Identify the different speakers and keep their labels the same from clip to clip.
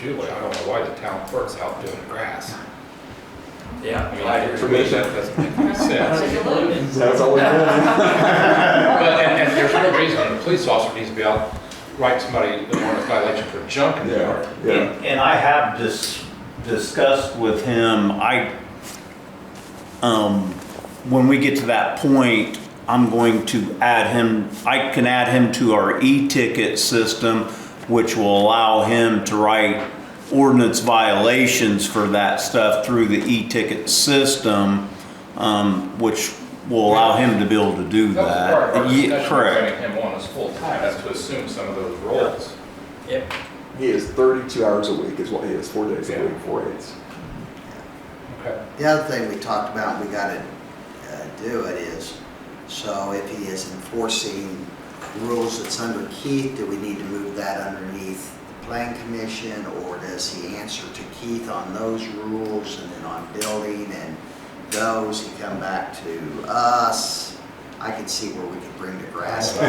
Speaker 1: Julie, I don't know why the town clerk's out doing grass. I mean,
Speaker 2: Yeah.
Speaker 1: I, for me, that doesn't make any sense.
Speaker 3: That's all we did.
Speaker 1: But, and, and there's no reason, a police officer needs to be out, write somebody, the warrant of violation for junk in the yard.
Speaker 3: Yeah, yeah.
Speaker 4: And I have dis- discussed with him, I, um, when we get to that point, I'm going to add him, I can add him to our e-ticket system, which will allow him to write ordinance violations for that stuff through the e-ticket system, um, which will allow him to be able to do
Speaker 1: That was part of our
Speaker 4: that. Yeah,
Speaker 1: discussion,
Speaker 4: Correct.
Speaker 1: bringing him on as full-time, that's to assume some of those roles.
Speaker 2: Yep.
Speaker 3: He is 32 hours a week is what he is, four days
Speaker 1: Yeah.
Speaker 3: a week, four eights.
Speaker 1: Okay.
Speaker 5: The other thing we talked about, we gotta uh, do it is, so if he is enforcing rules that's under Keith, do we need to move that underneath the plan commission? Or does he answer to Keith on those rules and then on building and those, he come back to us? I can see where we could bring the grass. up.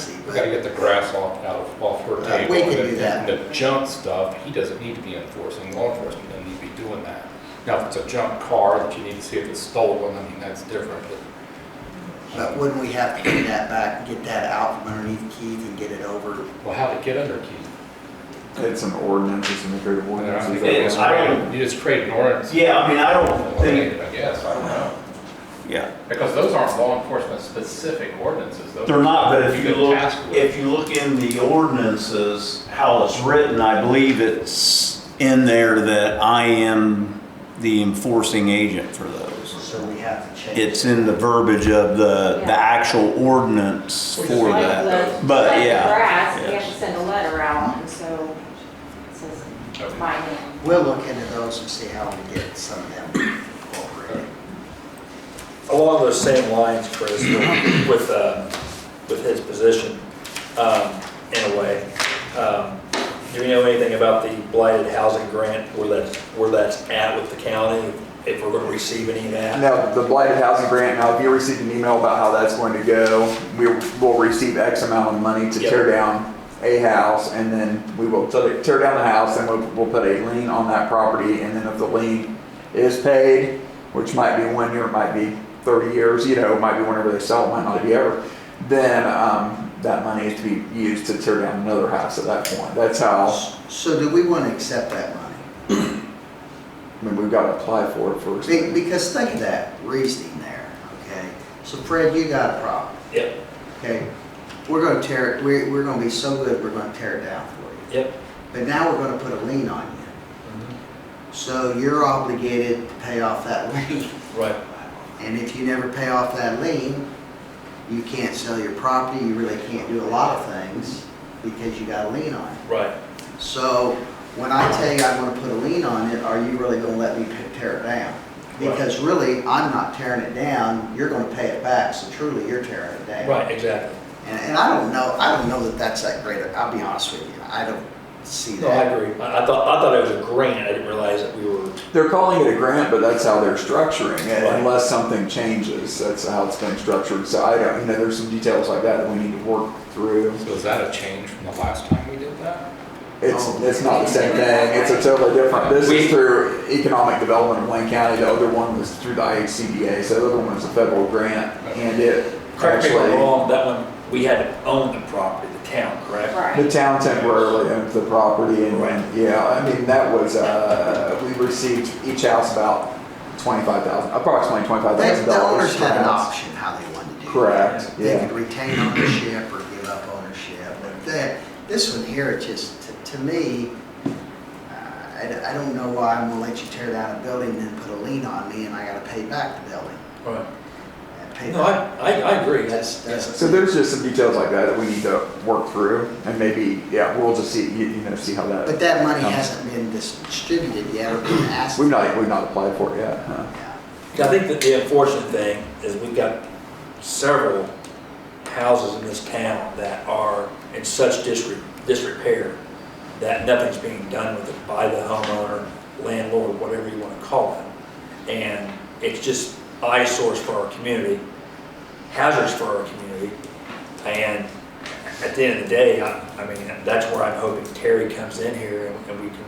Speaker 5: See,
Speaker 1: We gotta
Speaker 5: but-
Speaker 1: get the grass off, out of, off her
Speaker 5: Uh,
Speaker 1: table.
Speaker 5: we can
Speaker 1: and-
Speaker 5: do that.
Speaker 1: And the junk stuff, he doesn't need to be enforcing, law enforcement doesn't need to be doing that. Now, if it's a junk car that you need to see if it's stolen, I mean, that's different, but.
Speaker 5: But wouldn't we have to get that back, get that out from underneath Keith and get it over?
Speaker 1: Well, how'd it get under Keith?
Speaker 3: It's an ordinance, it's an agreed
Speaker 1: I
Speaker 3: ordinance.
Speaker 1: don't
Speaker 3: is
Speaker 1: think it
Speaker 3: that
Speaker 1: was
Speaker 3: what-
Speaker 4: I don't-
Speaker 1: created- You just create an ordinance.
Speaker 4: Yeah, I mean, I don't think,
Speaker 1: I guess, I don't know.
Speaker 4: yeah.
Speaker 1: Because those aren't law enforcement specific ordinances, those.
Speaker 4: They're not, but if you
Speaker 1: can
Speaker 4: look,
Speaker 1: task with.
Speaker 4: if you look in the ordinances, how it's written, I believe it's in there that I am the enforcing agent for those.
Speaker 5: So we have to change.
Speaker 4: It's in the verbiage of the, the
Speaker 6: Yeah.
Speaker 4: actual ordinance
Speaker 1: Which is
Speaker 4: for
Speaker 1: like
Speaker 4: that.
Speaker 6: the-
Speaker 4: But
Speaker 6: like the
Speaker 4: yeah,
Speaker 6: Grass,
Speaker 4: yeah.
Speaker 6: you have to send a letter out, and so it says
Speaker 1: Okay.
Speaker 6: my name.
Speaker 5: We'll look into those and see how we get some of them incorporated.
Speaker 2: Along those same lines, Chris, with, with, uh, with his position, um, in a way, um, do we know anything about the blighted housing grant, where that's, where that's at with the county? If we're gonna receive any of that?
Speaker 3: Now, the blighted housing grant, now if you receive an email about how that's going to go, we will receive X amount of money to
Speaker 2: Yep.
Speaker 3: tear down a house, and then we will tear tear down the house, and we'll, we'll put a lien on that property, and then if the lien is paid, which might be one year, it might be thirty years, you know, it might be whenever they sell, it might not be ever, then, um, that money is to be used to tear down another house at that point. That's how,
Speaker 5: So do we want to accept that money?
Speaker 3: I mean, we've got to apply for it first.
Speaker 5: Be- Because think of that reasoning there, okay? So Fred, you got a problem,
Speaker 2: Yep,
Speaker 5: okay? We're gonna tear it, we're, we're gonna be so good, we're gonna tear it down for you.
Speaker 2: yep.
Speaker 5: But now we're gonna put a lien on you. So you're obligated to pay off that lien.
Speaker 2: Right.
Speaker 5: And if you never pay off that lien, you can't sell your property, you really can't do a lot of things because you got a lien on it.
Speaker 2: Right.
Speaker 5: So when I tell you I'm gonna put a lien on it, are you really gonna let me p- tear it down? Because really, I'm not tearing it down, you're gonna pay it back, so truly, you're tearing it down.
Speaker 2: Right, exactly.
Speaker 5: And, and I don't know, I don't know that that's that great, I'll be honest with you, I don't see
Speaker 2: No, I
Speaker 5: that.
Speaker 2: agree. I, I thought, I thought it was a grant. I didn't realize that we were,
Speaker 3: They're calling it a grant, but that's how they're structuring it,
Speaker 2: Right.
Speaker 3: unless something changes. That's how it's been structured. So I don't, you know, there's some details like that that we need to work through.
Speaker 1: So is that a change from the last time we did that?
Speaker 3: It's,
Speaker 2: Oh.
Speaker 3: it's not the same thing. It's a totally different. This is through economic development of Wayne County. The other one was through the IHCDA. So the other one was a federal grant, and it
Speaker 2: correct me if I'm
Speaker 3: actually
Speaker 2: wrong, that one, we had to own the property, the town, correct?
Speaker 3: the
Speaker 6: Right.
Speaker 3: town temporarily owns the property, and
Speaker 2: Right.
Speaker 3: yeah, I mean that was uh, we received each house about twenty five thousand, approximately twenty five
Speaker 5: They-
Speaker 3: thousand
Speaker 5: The
Speaker 3: dollars.
Speaker 5: owners had an option how they wanted to do it.
Speaker 3: Correct.
Speaker 5: They
Speaker 3: Yeah.
Speaker 5: could retain ownership or give up ownership, but that, this one here, it just, to- to me, uh, I d- I don't know why I'm gonna let you tear down a building and then put a lien on me and I gotta pay back the building.
Speaker 2: Right.
Speaker 5: And pay
Speaker 2: No, I,
Speaker 5: back-
Speaker 2: I, I agree.
Speaker 5: That's- that's-
Speaker 3: So there's just some details like that that we need to work through, and maybe, yeah, we'll just see, you you know, see how
Speaker 5: But
Speaker 3: that,
Speaker 5: that money hasn't been distributed yet or been asked.
Speaker 3: we've not, we've not applied for it yet, huh?
Speaker 5: Yeah.
Speaker 2: I think that the unfortunate thing is we've got several houses in this town that are in such disre- disrepair that nothing's being done with it by the homeowner, landlord, whatever you want to call it. And it's just eyesores for our community, hazards for our community. And at the end of the day, I, I mean, that's where I'm hoping Terry comes in here and we can